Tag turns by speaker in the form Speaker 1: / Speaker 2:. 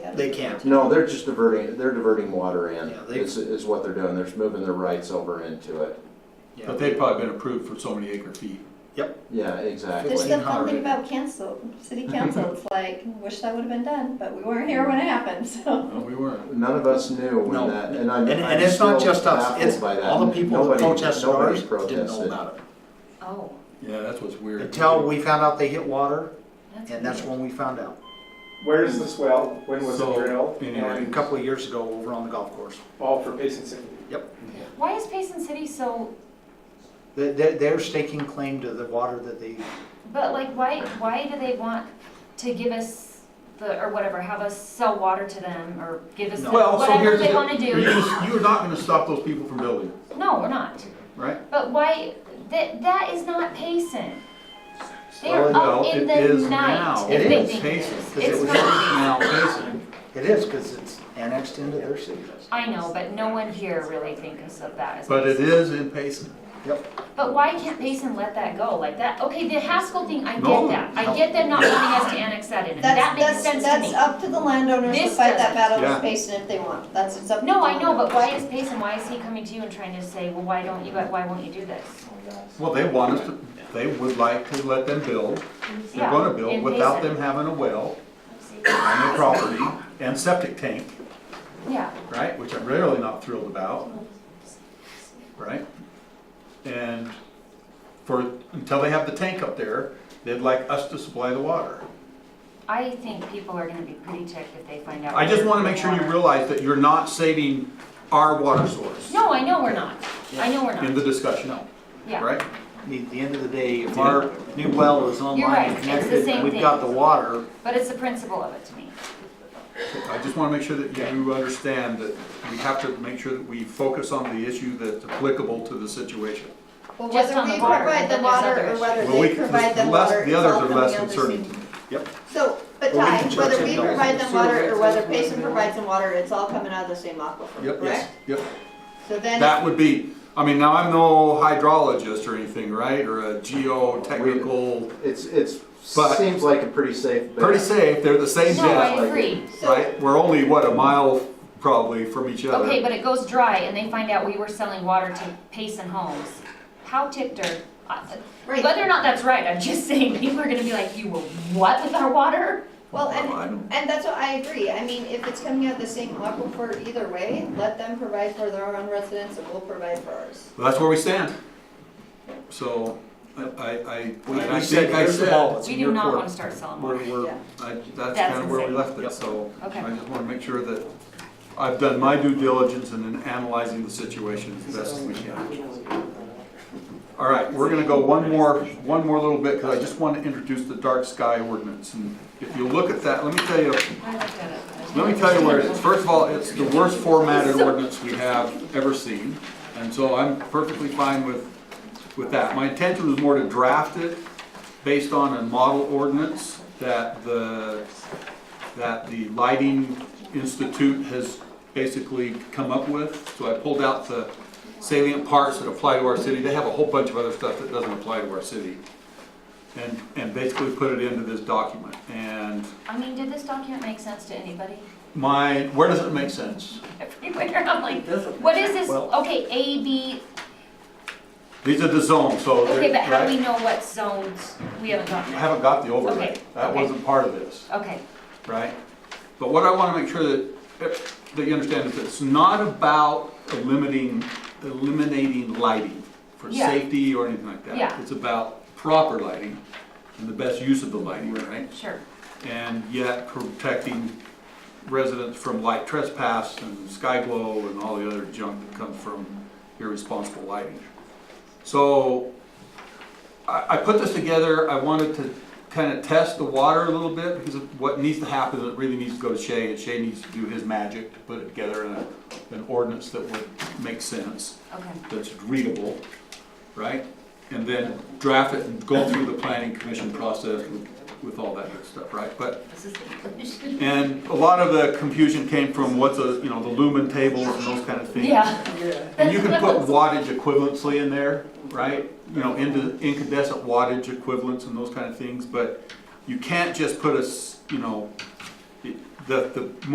Speaker 1: that.
Speaker 2: They can't.
Speaker 3: No, they're just diverting, they're diverting water in,
Speaker 2: Yeah, they-
Speaker 3: is, is what they're doing. They're just moving their rights over into it.
Speaker 2: Yeah.
Speaker 4: But they've probably been approved for so many acre feet.
Speaker 3: Yeah,
Speaker 1: There's
Speaker 3: exactly.
Speaker 1: the fun thing about council, city council, it's like, wish that would have been done, but we weren't here when it happened, so.
Speaker 4: No, we weren't.
Speaker 3: None of us knew when
Speaker 2: No.
Speaker 3: that, and I'm,
Speaker 2: And,
Speaker 3: I'm
Speaker 2: and it's not
Speaker 3: still
Speaker 2: just us,
Speaker 3: baffled
Speaker 2: it's
Speaker 3: by that.
Speaker 2: all the people that
Speaker 3: Nobody-
Speaker 2: protested
Speaker 3: nobody
Speaker 2: ours didn't know
Speaker 3: protested.
Speaker 2: about it.
Speaker 5: Oh,
Speaker 4: Yeah, that's what's weird.
Speaker 2: Until we found out they hit water,
Speaker 5: that's.
Speaker 2: and that's
Speaker 5: weird.
Speaker 2: when we found out.
Speaker 6: Where is this well? When was
Speaker 4: So,
Speaker 6: it drilled?
Speaker 4: anyway.
Speaker 2: A
Speaker 6: And
Speaker 2: couple of years ago over on the golf course.
Speaker 6: all for Payson City.
Speaker 5: Why is Payson City so,
Speaker 2: They, they- they're staking claim to the water that they,
Speaker 5: but like, why, why do they want to give us the, or whatever, have us sell water to them or give us,
Speaker 4: Well, so
Speaker 5: whatever
Speaker 4: here's the.
Speaker 5: they wanna
Speaker 4: You're
Speaker 5: do?
Speaker 4: gonna- You're not gonna stop those people from building,
Speaker 5: No, we're not.
Speaker 4: right?
Speaker 5: But why, that, that is not Payson. They
Speaker 2: Oh,
Speaker 5: are
Speaker 4: well,
Speaker 5: up in
Speaker 4: it is
Speaker 5: the
Speaker 4: now.
Speaker 5: night
Speaker 2: It
Speaker 5: if they
Speaker 2: is
Speaker 5: think
Speaker 4: Payson,
Speaker 5: this.
Speaker 2: 'cause it
Speaker 5: It's
Speaker 2: was
Speaker 4: Now,
Speaker 5: not,
Speaker 4: Payson,
Speaker 2: it is, because it's annexed into their city.
Speaker 5: I know, but no one here really thinks of that as.
Speaker 4: but it
Speaker 5: Payson.
Speaker 4: is in Payson.
Speaker 5: But why can't Payson let that go like that? Okay, the Haskell thing, I
Speaker 4: No,
Speaker 5: get that.
Speaker 4: no.
Speaker 5: I get them not wanting us to annex that in, and that makes
Speaker 1: That's,
Speaker 5: sense
Speaker 1: that's,
Speaker 5: to
Speaker 1: that's
Speaker 5: me.
Speaker 1: up to the landowners to
Speaker 5: This
Speaker 1: fight that
Speaker 5: doesn't.
Speaker 1: battle
Speaker 4: Yeah.
Speaker 1: with Payson if they want, that's, it's up to
Speaker 5: No,
Speaker 1: the
Speaker 5: I know,
Speaker 1: landowners.
Speaker 5: but why is Payson, why is he coming to you and trying to say, well, why don't you, why won't you do this?
Speaker 4: Well, they want us to, they would like to let them build. They're
Speaker 5: Yeah,
Speaker 4: gonna build
Speaker 5: in
Speaker 4: without them
Speaker 5: Payson.
Speaker 4: having a well on their property and septic tank,
Speaker 5: Yeah,
Speaker 4: right? Which I'm really not thrilled about, right? And for, until they have the tank up there, they'd like us to supply the water.
Speaker 5: I think people are gonna be pretty ticked if they find out.
Speaker 4: I just
Speaker 5: we're
Speaker 4: wanna make sure you
Speaker 5: doing water.
Speaker 4: realize that you're not saving our water source
Speaker 5: No, I know we're not. I know we're
Speaker 4: in the
Speaker 5: not,
Speaker 4: discussion,
Speaker 5: yeah.
Speaker 4: right?
Speaker 2: I mean, At the end of the day, if our new well is
Speaker 5: right,
Speaker 2: online and
Speaker 5: it's the
Speaker 2: connected,
Speaker 5: same
Speaker 2: we've got the
Speaker 5: thing.
Speaker 2: water,
Speaker 5: But it's the principle of it to me.
Speaker 4: I just want to make sure that you understand that we have to make sure that we focus on the issue that's applicable to the situation.
Speaker 1: Well,
Speaker 5: Just
Speaker 1: whether
Speaker 5: on
Speaker 1: we
Speaker 5: the water,
Speaker 1: provide
Speaker 5: then
Speaker 1: the
Speaker 5: there's
Speaker 1: water
Speaker 5: other
Speaker 1: or whether
Speaker 4: Well, we-
Speaker 1: they provide
Speaker 4: the
Speaker 1: them
Speaker 4: less-
Speaker 1: water,
Speaker 4: the
Speaker 1: it's
Speaker 4: others
Speaker 1: all
Speaker 4: are
Speaker 1: coming
Speaker 4: less
Speaker 1: under
Speaker 4: concerning.
Speaker 1: city.
Speaker 4: Yep.
Speaker 1: So, but
Speaker 2: Well, we
Speaker 1: Ty,
Speaker 2: can charge
Speaker 1: whether
Speaker 2: them
Speaker 1: we
Speaker 2: dollars.
Speaker 1: provide them water or whether Payson
Speaker 7: Sewer
Speaker 1: provides them water, it's all coming out of the same aquifer,
Speaker 4: Yep, yes,
Speaker 1: correct?
Speaker 4: yep.
Speaker 1: So
Speaker 4: That
Speaker 1: then,
Speaker 4: would be, I mean, now I'm no hydrologist or anything, right, or a geotechnical,
Speaker 3: It's, it's,
Speaker 4: But-
Speaker 3: seems like a pretty safe bet.
Speaker 4: pretty safe, they're the same
Speaker 5: No,
Speaker 4: depth,
Speaker 5: I
Speaker 3: like-
Speaker 5: agree.
Speaker 1: so,
Speaker 4: right? We're only, what, a mile probably from each other.
Speaker 5: Okay, but it goes dry and they find out we were selling water to Payson Homes. How ticked are, I-
Speaker 1: right,
Speaker 5: whether or not that's right, I'm just saying, people are gonna be like, you were what with our water?
Speaker 1: well,
Speaker 4: Well, I
Speaker 1: and,
Speaker 4: don't-
Speaker 1: and that's what I agree, I mean, if it's coming out of the same aquifer either way, let them provide for their own residents and we'll provide for ours.
Speaker 4: Well, That's where we stand. So, I, I, I-
Speaker 2: we
Speaker 4: I
Speaker 2: we said,
Speaker 4: think I
Speaker 2: here's the ball,
Speaker 4: said,
Speaker 2: it's
Speaker 5: We
Speaker 2: in
Speaker 5: do
Speaker 2: your
Speaker 5: not
Speaker 2: court.
Speaker 5: wanna start selling water.
Speaker 4: we're, we're,
Speaker 1: Yeah.
Speaker 4: I, that's
Speaker 5: That's
Speaker 4: kind of where we
Speaker 5: insane.
Speaker 4: left it,
Speaker 2: Yep.
Speaker 4: so.
Speaker 5: Okay.
Speaker 4: I just want to make sure that I've done my due diligence in analyzing the situation as best as we can. All right, we're gonna go one more, one more little bit, because I just want to introduce the dark sky ordinance. And if you look at that, let me tell you,
Speaker 5: I looked at it.
Speaker 4: let me tell you where it is. First of all, it's the worst formatted ordinance we have ever seen, and so I'm perfectly fine with, with that. My intention was more to draft it based on a model ordinance that the, that the Lighting Institute has basically come up with. So I pulled out the salient parts that apply to our city. They have a whole bunch of other stuff that doesn't apply to our city. And, and basically put it into this document. And
Speaker 5: I mean, did this document make sense to anybody?
Speaker 4: my, where does it make sense?
Speaker 5: Everywhere, I'm like, what is this, okay, A, B,
Speaker 4: These are the zones, so. they're-
Speaker 5: okay, but how do we
Speaker 4: right?
Speaker 5: know what zones we haven't gotten?
Speaker 4: I haven't got the overlay.
Speaker 5: Okay,
Speaker 4: That
Speaker 5: okay.
Speaker 4: wasn't part of this,
Speaker 5: Okay,
Speaker 4: right? But what I want to make sure that, that you understand is that it's not about limiting, eliminating lighting for
Speaker 5: Yeah.
Speaker 4: safety or anything like that.
Speaker 5: Yeah.
Speaker 4: It's about proper lighting and the best use of the lighting, right?
Speaker 5: sure,
Speaker 4: And yet protecting residents from light trespass and sky glow and all the other junk that comes from irresponsible lighting. So I, I put this together, I wanted to kind of test the water a little bit because of what needs to happen, is it really needs to go to Shay and Shay needs to do his magic to put it together in a, an ordinance that would make sense
Speaker 5: okay.
Speaker 4: that's readable, right? And then draft it and go through the planning commission process with- with all that good stuff, right? But, and a lot of the confusion came from what's a, you know, the lumen tables and those kind of things.
Speaker 5: Yeah,
Speaker 4: And you can put wattage equivalency in there, right? You know, into incandescent wattage equivalents and those kind of things, but you can't just put a, s- you know, it- the, the